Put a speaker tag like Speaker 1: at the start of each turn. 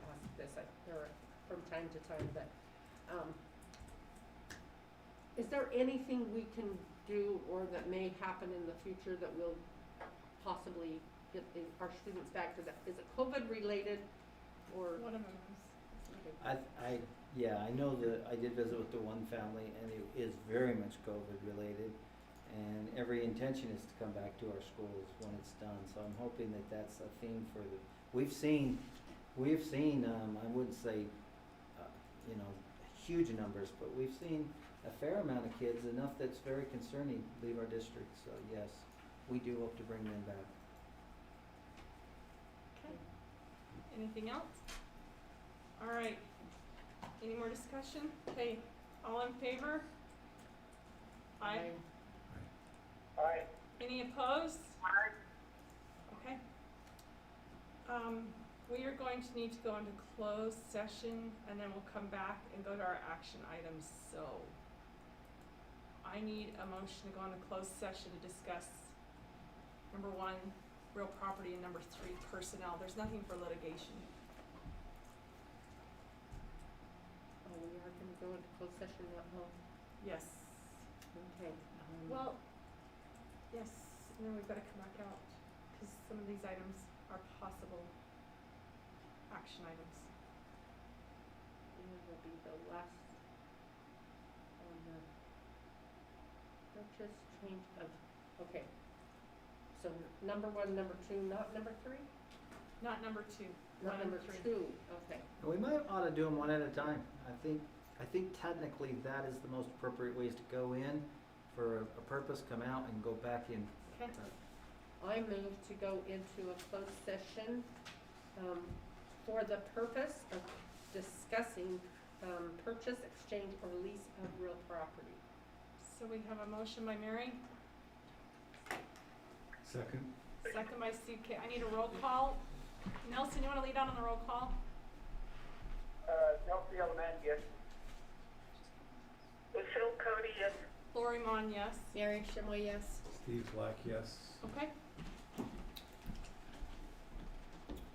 Speaker 1: from time to time, but, um, is there anything we can do or that may happen in the future that will possibly get the- our students back to that? Is it COVID related or?
Speaker 2: One of them is.
Speaker 3: I, I, yeah, I know that, I did visit with the one family, and it is very much COVID-related, and every intention is to come back to our schools when it's done, so I'm hoping that that's a theme for the, we've seen, we've seen, um, I wouldn't say, uh, you know, huge numbers, but we've seen a fair amount of kids, enough that's very concerning, leave our district, so yes, we do hope to bring them back.
Speaker 2: Okay. Anything else? All right. Any more discussion? Okay, all in favor? Aye.
Speaker 4: Aye.
Speaker 2: Any opposed? Okay. Um, we are going to need to go into closed session and then we'll come back and go to our action items, so. I need a motion to go into closed session to discuss number one, real property, and number three, personnel. There's nothing for litigation.
Speaker 1: Oh, we are gonna go into closed session at home,
Speaker 2: Yes.
Speaker 1: okay. um,
Speaker 2: Well, yes, and then we've gotta come back out, because some of these items are possible action items.
Speaker 1: It will be the last on the purchase change of, okay. So number one, number two, not number three?
Speaker 2: Not number two.
Speaker 1: Not number two, okay.
Speaker 3: And we might ought to do them one at a time. I think, I think technically that is the most appropriate ways to go in for a a purpose, come out and go back in.
Speaker 2: Okay,
Speaker 1: I move to go into a closed session um, for the purpose of discussing um, purchase, exchange, or lease of real property.
Speaker 2: so we have a motion by Mary,
Speaker 5: Second?
Speaker 2: second by Steve K. I need a roll call. Nelson, you wanna lead out on the roll call?
Speaker 4: Uh, Delphi Elementary, yes. Phil Cody, yes.
Speaker 2: Lori Mon, yes.
Speaker 1: Mary Shimel, yes.
Speaker 5: Steve Black, yes.
Speaker 2: Okay,